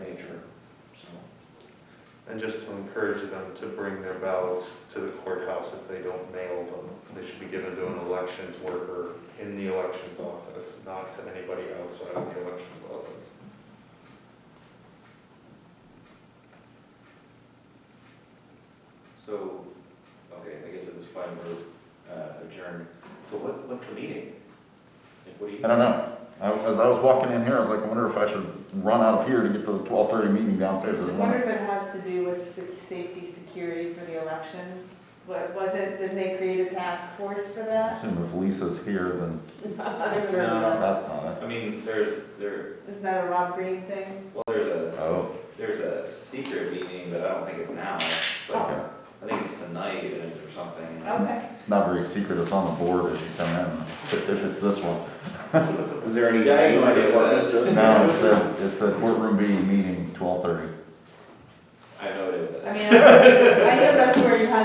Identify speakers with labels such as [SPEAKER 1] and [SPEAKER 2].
[SPEAKER 1] And just to encourage them to bring their ballots to the courthouse if they don't mail them. They should be given to an elections worker in the elections office, not to anybody outside of the elections office.
[SPEAKER 2] So, okay, I guess at this point we're uh, adjourned. So what, what's the meeting? Like, what do you?
[SPEAKER 3] I don't know. I, as I was walking in here, I was like, I wonder if I should run out of here to get to the twelve thirty meeting downstairs.
[SPEAKER 4] I wonder if it has to do with se- safety, security for the election? What, was it, didn't they create a task force for
[SPEAKER 3] I
[SPEAKER 4] that?
[SPEAKER 3] assume if Lisa's here, then
[SPEAKER 4] I don't remember.
[SPEAKER 3] that's not
[SPEAKER 2] I mean, there's, there,
[SPEAKER 4] Isn't that a Rob Green thing?
[SPEAKER 2] well, there's
[SPEAKER 3] it.
[SPEAKER 2] a,
[SPEAKER 3] Oh,
[SPEAKER 2] there's a secret meeting, but I don't think it's now. It's like,
[SPEAKER 3] okay.
[SPEAKER 2] I think it's tonight or something.
[SPEAKER 4] Okay.
[SPEAKER 3] It's not very secret. It's on the board as you come in, if it's this one.
[SPEAKER 5] Is there any?
[SPEAKER 2] Yeah, I have no idea what that is.
[SPEAKER 3] No, it's a, it's a courtroom B meeting, twelve thirty.
[SPEAKER 2] I know it is.
[SPEAKER 4] I mean, I know that's where you had